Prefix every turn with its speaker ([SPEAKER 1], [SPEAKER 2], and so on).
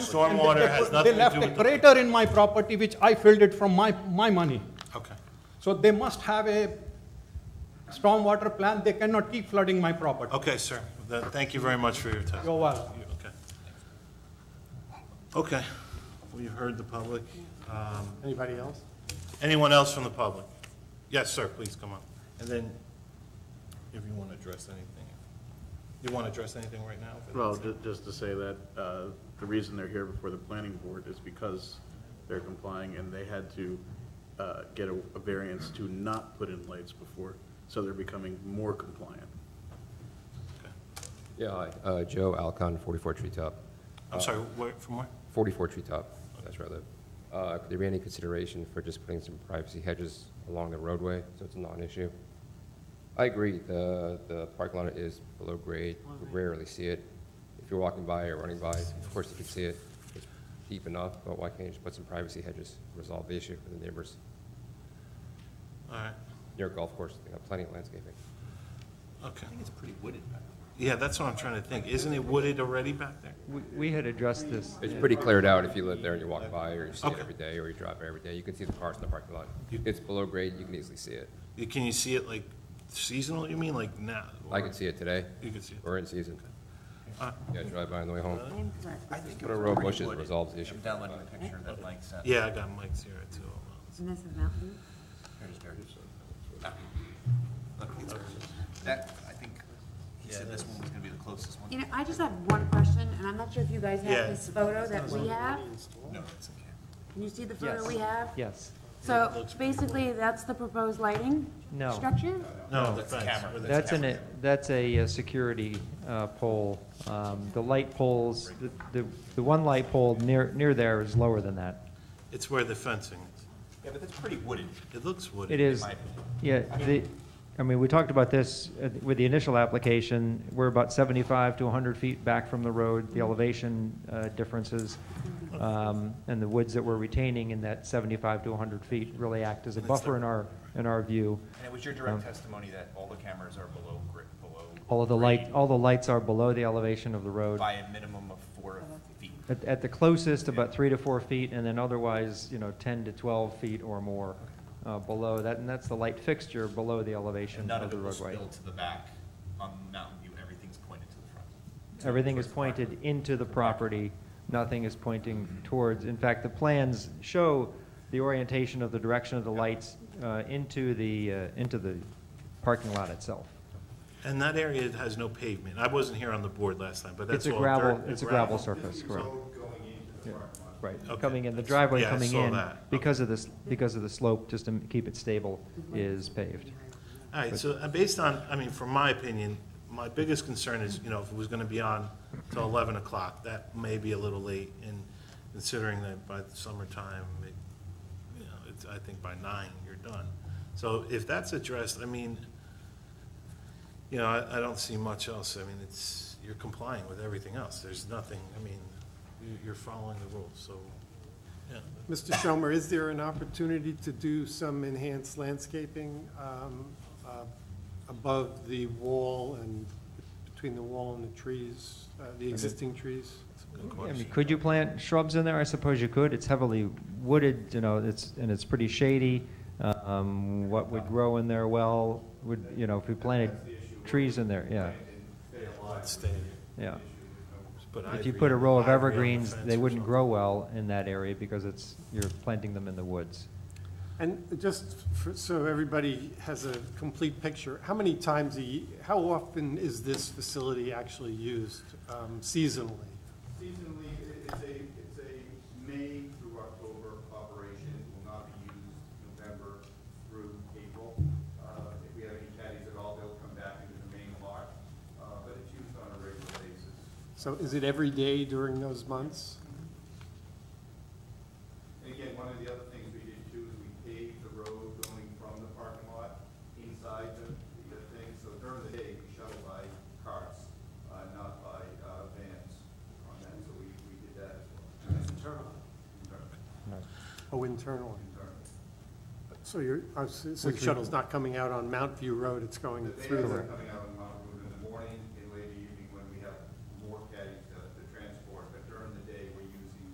[SPEAKER 1] stormwater has nothing
[SPEAKER 2] They
[SPEAKER 1] to
[SPEAKER 2] left
[SPEAKER 1] do
[SPEAKER 2] a
[SPEAKER 1] with the...
[SPEAKER 2] crater in my property, which I filled it from my, my money.
[SPEAKER 1] Okay.
[SPEAKER 2] So they must have a stormwater plan, they cannot keep flooding my property.
[SPEAKER 1] Okay, sir. Th- Thank you very much for your time.
[SPEAKER 2] You're welcome.
[SPEAKER 1] You- Okay. Okay, we heard the public. Um,
[SPEAKER 3] Anybody else?
[SPEAKER 1] Anyone else from the public? Yes, sir, please, come on. And then, if you want to address anything, you want to address anything right now? If it-
[SPEAKER 4] Well, ju- just to say that, uh, the reason they're here before the planning board is because they're complying and they had to, uh, get a, a variance to not put in lights before, so they're becoming more compliant.
[SPEAKER 5] Yeah, hi, uh, Joe Alcon, 44 Treetop,
[SPEAKER 1] I'm sorry, where, from where?
[SPEAKER 5] 44 Treetop, that's where I live. Uh, Could there be any consideration for just putting some privacy hedges along the roadway, so it's not an issue? I agree, the, the parking lot is below grade, you rarely see it. If you're walking by or running by, of course you can see it, it's deep enough, but why can't you just put some privacy hedges, resolve the issue for the neighbors?
[SPEAKER 1] All right,
[SPEAKER 5] Near a golf course, they got plenty of landscaping.
[SPEAKER 1] okay. I think it's pretty wooded back there. Yeah, that's what I'm trying to think. Isn't it wooded already back there?
[SPEAKER 6] We- We had addressed this,
[SPEAKER 5] It's pretty cleared out if you live there and you walk by, or you see it
[SPEAKER 1] Okay.
[SPEAKER 5] every day, or you drive by every day, you can see the cars in the parking lot. It's below grade, you can easily see it.
[SPEAKER 1] You- Can you see it like seasonal, you mean, like now?
[SPEAKER 5] I can see it today.
[SPEAKER 1] You can see it.
[SPEAKER 5] We're in season.
[SPEAKER 1] Uh,
[SPEAKER 5] Yeah, drive by on the way home. Put a row of bushes resolves the issue.
[SPEAKER 7] I'm downloading the picture that Mike sent.
[SPEAKER 1] Yeah, I got Mike's here too. Hold on.
[SPEAKER 8] Isn't this a mountain?
[SPEAKER 7] Here's Barry. Ah. Look, it's Barry. That, I think, he said this one was gonna be the closest one.
[SPEAKER 8] You know, I just have one question, and I'm not sure if you guys
[SPEAKER 1] Yeah.
[SPEAKER 8] have this photo that we have.
[SPEAKER 7] No, it's okay.
[SPEAKER 8] Can you see the
[SPEAKER 6] Yes.
[SPEAKER 8] photo we have?
[SPEAKER 6] yes.
[SPEAKER 8] So basically, that's the proposed lighting
[SPEAKER 6] No.
[SPEAKER 8] structure?
[SPEAKER 1] No,
[SPEAKER 7] That's the
[SPEAKER 1] thanks.
[SPEAKER 7] camera.
[SPEAKER 1] Where the-
[SPEAKER 6] That's an, that's a uh, security uh, pole. Um, The light poles, the- the, the one light pole near, near there is lower than that.
[SPEAKER 1] It's where the fencing is.
[SPEAKER 7] Yeah, but that's pretty wooded.
[SPEAKER 1] It looks wooded.
[SPEAKER 6] It is,
[SPEAKER 7] my opinion.
[SPEAKER 6] yeah, the, I mean, we talked about this uh, with the initial application, we're about 75 to 100 feet back from the road, the elevation uh, differences, um, and the woods that we're retaining in that 75 to 100 feet really act as a buffer in our, in our view.
[SPEAKER 7] And it was your direct testimony that all the cameras are below, gri- below.
[SPEAKER 6] All of the light, all the lights are below the elevation of the road.
[SPEAKER 7] By a minimum of four feet.
[SPEAKER 6] At, at the closest, about three to four feet, and then otherwise, you know, 10 to 12 feet or more uh, below that, and that's the light fixture below the
[SPEAKER 7] And
[SPEAKER 6] elevation
[SPEAKER 7] none
[SPEAKER 6] of
[SPEAKER 7] of
[SPEAKER 6] the
[SPEAKER 7] it will
[SPEAKER 6] roadway.
[SPEAKER 7] spill to the back on Mountain View. Everything's pointed to the front.
[SPEAKER 6] Everything is pointed into the property, nothing is pointing
[SPEAKER 7] Mm-hmm.
[SPEAKER 6] towards. In fact, the plans show the orientation of the direction of the lights uh, into the, uh, into the parking lot itself.
[SPEAKER 1] And that area has no pavement. I wasn't here on the board last time, but that's
[SPEAKER 6] It's a
[SPEAKER 1] all
[SPEAKER 6] gravel,
[SPEAKER 1] dirt and
[SPEAKER 6] it's a gravel surface, correct. Right,
[SPEAKER 1] Okay.
[SPEAKER 6] coming in, the driveway
[SPEAKER 1] Yeah, I
[SPEAKER 6] coming
[SPEAKER 1] saw
[SPEAKER 6] in,
[SPEAKER 1] that.
[SPEAKER 6] because of this, because of the slope, just to keep it stable, is paved.
[SPEAKER 1] All right, so uh, based on, I mean, from my opinion, my biggest concern is, you know, if it was gonna be on till eleven o'clock, that may be a little late, and considering that by the summertime, it, you know, it's, I think by nine, you're done. So if that's addressed, I mean, you know, I, I don't see much else, I mean, it's, you're complying with everything else, there's nothing, I mean, you- you're following the rules, so, yeah.
[SPEAKER 3] Mr. Schomer, is there an opportunity to do some enhanced landscaping um, uh, above the wall and between the wall and the trees, uh, the existing trees?
[SPEAKER 1] it's a good
[SPEAKER 6] I mean,
[SPEAKER 1] question.
[SPEAKER 6] could you plant shrubs in there? I suppose you could. It's heavily wooded, you know, it's, and it's pretty shady. Um, what would grow in there well, would, you know, if we planted trees in there, yeah,
[SPEAKER 1] Stay.
[SPEAKER 6] yeah.
[SPEAKER 1] But I
[SPEAKER 6] If you
[SPEAKER 1] agree
[SPEAKER 6] put a
[SPEAKER 1] on-
[SPEAKER 6] row of
[SPEAKER 1] I agree on the
[SPEAKER 6] evergreens,
[SPEAKER 1] fence
[SPEAKER 6] they
[SPEAKER 1] or
[SPEAKER 6] wouldn't
[SPEAKER 1] something.
[SPEAKER 6] grow well in that area because it's, you're planting them in the woods.
[SPEAKER 3] And just for- so everybody has a complete picture, how many times, a ye- how often is this facility actually used um, seasonally?
[SPEAKER 4] Seasonally, it's a, it's a May through October operation, will not be used November through April. Uh, If we have any caddies at all, they'll come back into the main lot, uh, but it's used on a regular basis.
[SPEAKER 3] So is it every day during those months?
[SPEAKER 4] And again, one of the other things we did too is we paved the road going from the parking lot inside the, the thing. So during the day, we shuttle by carts, uh, not by, uh, vans on that, so we, we did that as well. Internal? Internal.
[SPEAKER 3] Oh, internally? So you're, oh, so so the
[SPEAKER 6] Which we-
[SPEAKER 3] shuttle's not coming out on Mount View Road, it's going
[SPEAKER 4] The
[SPEAKER 3] through
[SPEAKER 4] vans
[SPEAKER 3] the,
[SPEAKER 4] are coming out uh,